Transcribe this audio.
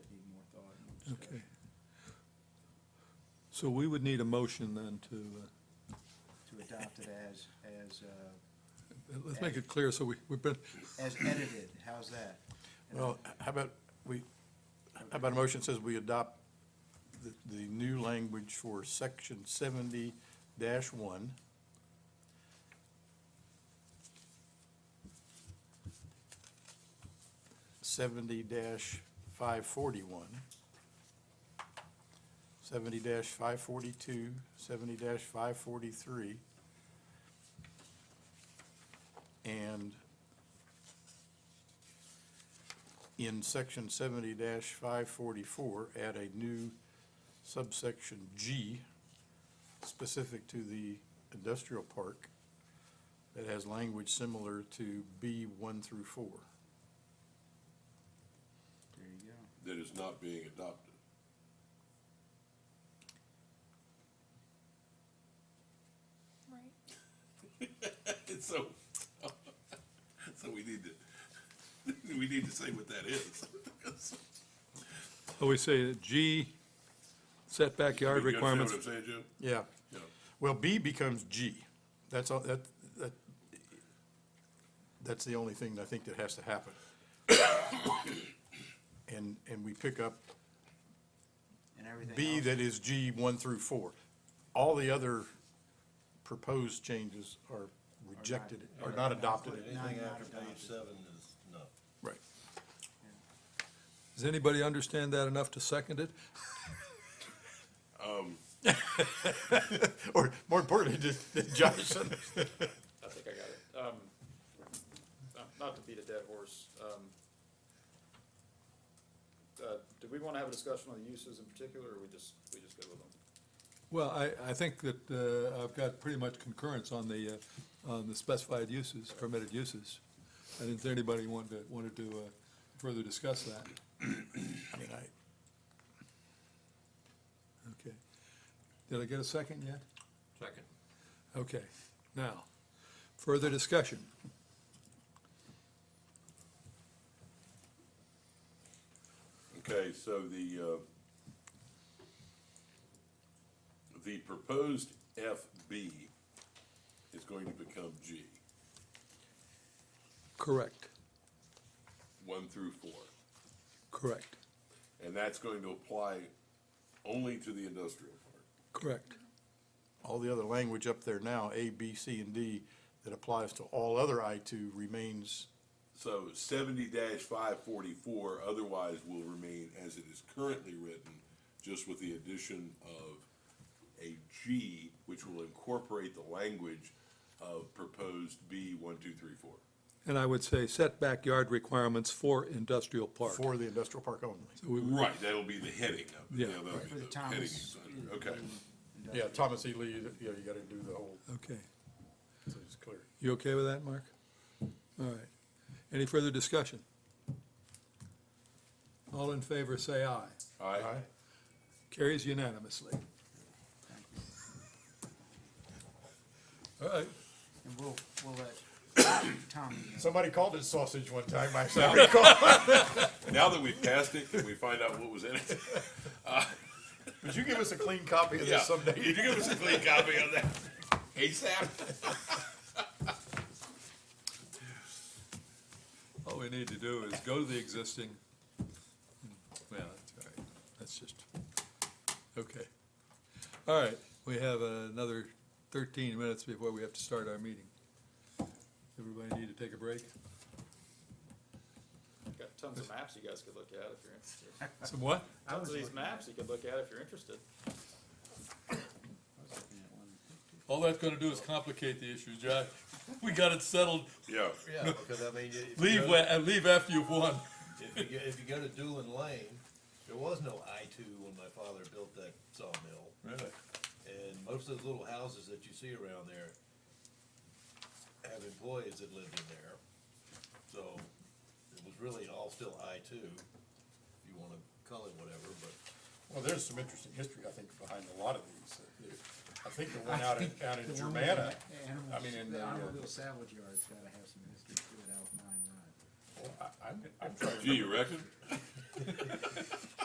So we would need a motion then to, to adopt it as, as, uh, uh, let's make it clear, so we, we've been, as edited, how's that? Well, how about, we, how about a motion that says we adopt the, the new language for section seventy dash one? Seventy dash five forty-one. Seventy dash five forty-two, seventy dash five forty-three. And in section seventy five forty-four, add a new subsection G specific to the industrial park that has language similar to B one through four. There you go. that is not being adopted. Right. So, so we need to, we need to say what that is. oh, we say G, set backyard You understand requirements. What I'm saying, Jim? Yeah, Yeah. well, B becomes G. That's all, that, that, that's the only thing I think that has to happen. And, and we pick up And everything B else- that is G one through four. All the other proposed changes are rejected, are not adopted. Nine, Anything not after adopted. page seven is no. Right. Does anybody understand that enough to second it? Or more importantly, just that Josh, I think I got it. Um, not- not to beat a dead horse, um, uh, do we wanna have a discussion on the uses in particular, or we just, we just go with them? Well, I, I think that uh, I've got pretty much concurrence on the, uh, on the specified uses, permitted uses. I didn't think anybody wanted to, wanted to uh, further discuss that. I mean, I, Okay. Did I get a second yet? Second. Okay. Now, further discussion. Okay, so the, uh, the proposed FB is going to become G, Correct, one through four. correct, And that's going to apply only to the industrial park. correct. all the other language up there now, A, B, C, and D, that applies to all other I two remains, So seventy five forty-four otherwise will remain as it is currently written, just with the addition of a G, which will incorporate the language of proposed B one, two, three, four. And I would say set backyard requirements for industrial park. for the industrial park only. Right, that'll be the heading of Yeah, it. that'll right. be For the Mm-hmm. the heading Thomas. under- Okay, Yeah, Thomas E. Lee, you know, you gotta do the whole, Okay. so it's clear. You okay with that, Mark? All right. Any further discussion? All in favor, say aye. aye. Aye. Carries unanimously. Uh, All right. And we'll, we'll let Tommy know. Somebody called it sausage one time, I said, "We call-" Now that we've passed it, can we find out what was in it? would you give us a clean copy of this someday? Could you give us a clean copy of that ASAP? All we need to do is go to the existing. Yeah, that's all right. That's just, okay. All right, we have another thirteen minutes before we have to start our meeting. Everybody need to take a break? Got tons of maps you guys could look at if you're interested. Some what? Tons of these maps you could look at if you're interested. All that's gonna do is complicate the issue, Jack. We got it settled. Yeah, Yeah, because I mean, you- if you Leave, go- when- and leave after you've won. If you, go- if you go to Doolin Lane, there was no I two when my father built that sawmill. Really? And most of the little houses that you see around there have employees that lived in there. So it was really all still I two, if you wanna call it whatever, but. Well, there's some interesting history, I think, behind a lot of these. I think the one out in, out in Germana, I mean, in The the, uh, automobile salvage yard's gotta have some history to it out of nine, nine. well, I- I'm, I'm trying to gee, remember, you reckon?